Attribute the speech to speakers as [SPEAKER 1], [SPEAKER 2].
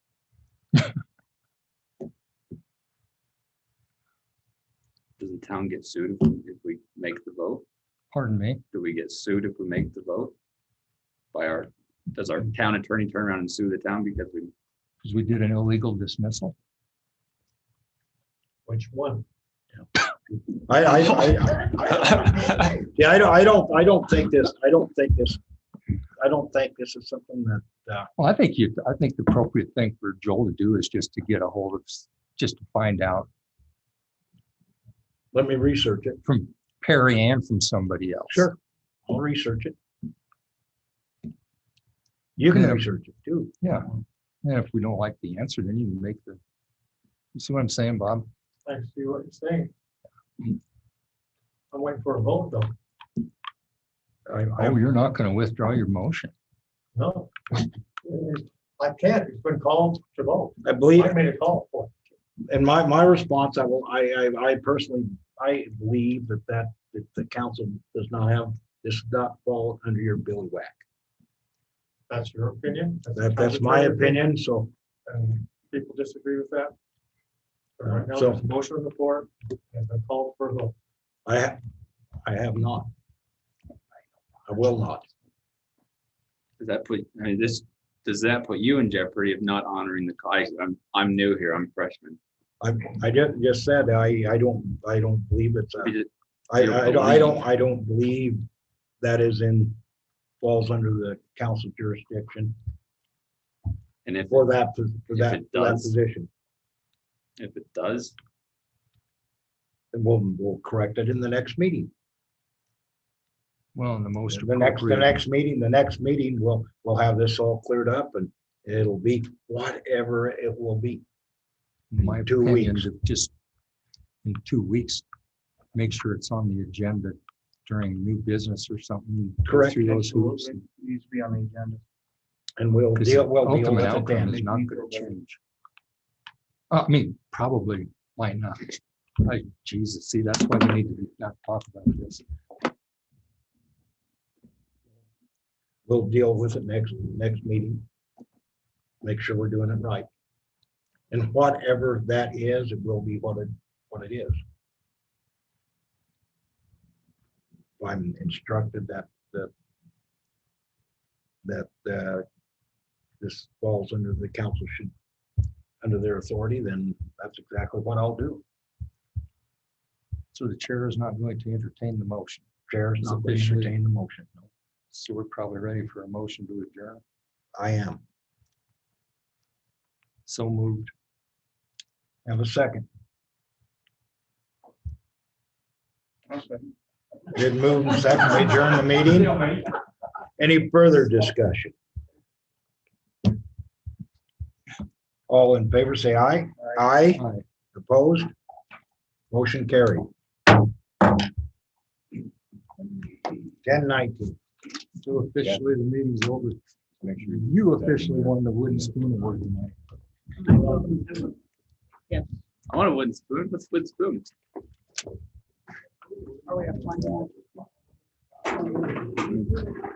[SPEAKER 1] Does the town get sued if we- if we make the vote?
[SPEAKER 2] Pardon me.
[SPEAKER 1] Do we get sued if we make the vote? By our, does our town attorney turn around and sue the town because we,
[SPEAKER 2] Because we did an illegal dismissal.
[SPEAKER 3] Which one?
[SPEAKER 4] I, I, I, I- yeah, I don't, I don't, I don't think this, I don't think this, I don't think this is something that,
[SPEAKER 2] Well, I think you, I think the appropriate thing for Joel to do is just to get a hold of, s- just to find out
[SPEAKER 4] let me research it.
[SPEAKER 2] from Perry and from somebody else.
[SPEAKER 4] Sure, I'll research it. You can
[SPEAKER 2] Yeah.
[SPEAKER 4] research it too.
[SPEAKER 2] Yeah. And if we don't like the answer, then you can make the, you see what I'm saying, Bob?
[SPEAKER 3] I see what you're saying. I'm waiting for a vote though.
[SPEAKER 4] I, I,
[SPEAKER 2] Oh, you're not going to withdraw your motion.
[SPEAKER 3] No. I can't. It's been called to vote.
[SPEAKER 4] I believe,
[SPEAKER 3] I made a call for it.
[SPEAKER 4] and my, my response, I will, I, I, I personally, I believe that that, that the council does not have, this does not fall under your billy whack.
[SPEAKER 3] That's your opinion.
[SPEAKER 4] That, that's my opinion, so,
[SPEAKER 3] And people disagree with that. But Right now,
[SPEAKER 4] So-
[SPEAKER 3] there's a motion on the floor and a call for a vote.
[SPEAKER 4] I, ha- I have not. I will not.
[SPEAKER 1] does that put, I mean, this, does that put you in jeopardy of not honoring the, I, I'm, I'm new here, I'm freshman.
[SPEAKER 4] I, I just, just said, I, I don't, I don't believe it's, a-
[SPEAKER 1] Is it-
[SPEAKER 4] I,
[SPEAKER 1] You don't
[SPEAKER 4] I, don't- I don't, I don't believe that is in, falls under the council jurisdiction
[SPEAKER 1] And if,
[SPEAKER 4] for that, pos- for
[SPEAKER 1] If
[SPEAKER 4] that,
[SPEAKER 1] it
[SPEAKER 4] for that
[SPEAKER 1] does.
[SPEAKER 4] position.
[SPEAKER 1] if it does,
[SPEAKER 4] And we'll, we'll correct it in the next meeting.
[SPEAKER 2] Well, and the most
[SPEAKER 4] The next, the
[SPEAKER 2] appropriate,
[SPEAKER 4] next meeting, the next meeting, we'll, we'll have this all cleared up and it'll be whatever it will be.
[SPEAKER 2] in my
[SPEAKER 4] two
[SPEAKER 2] opinion,
[SPEAKER 4] weeks.
[SPEAKER 2] is just in two weeks, make sure it's on the agenda during new business or something. go
[SPEAKER 4] Correct.
[SPEAKER 2] Through those hoops.
[SPEAKER 3] Needs to be on the agenda.
[SPEAKER 4] And we'll
[SPEAKER 2] Because
[SPEAKER 4] deal,
[SPEAKER 2] the
[SPEAKER 4] we'll deal
[SPEAKER 2] ultimate
[SPEAKER 4] with it
[SPEAKER 2] outcome is
[SPEAKER 4] then.
[SPEAKER 2] not going to change. Uh, I mean, probably might not. Like, Jesus, see, that's why we need to not talk about this.
[SPEAKER 4] We'll deal with it next, next meeting. Make sure we're doing it right. And whatever that is, it will be what it, what it is. I'm instructed that, that that, uh, this falls under the council should, under their authority, then that's exactly what I'll do.
[SPEAKER 2] So the chair is not going to entertain the motion.
[SPEAKER 4] Chair is not going to
[SPEAKER 2] Officially.
[SPEAKER 4] entertain the motion. No,
[SPEAKER 2] So we're probably ready for a motion to adjourn.
[SPEAKER 4] I am.
[SPEAKER 2] So moved.
[SPEAKER 4] Have a second. Been moved and seconded, We adjourn the meeting. Any further discussion? All in favor, say aye. Aye.
[SPEAKER 2] Aye.
[SPEAKER 4] Opposed? Motion carried. Ten nineteen.
[SPEAKER 2] So officially, the meeting's over. You officially won the wooden spoon award tonight.
[SPEAKER 1] I want a wooden spoon, let's wooden spoon.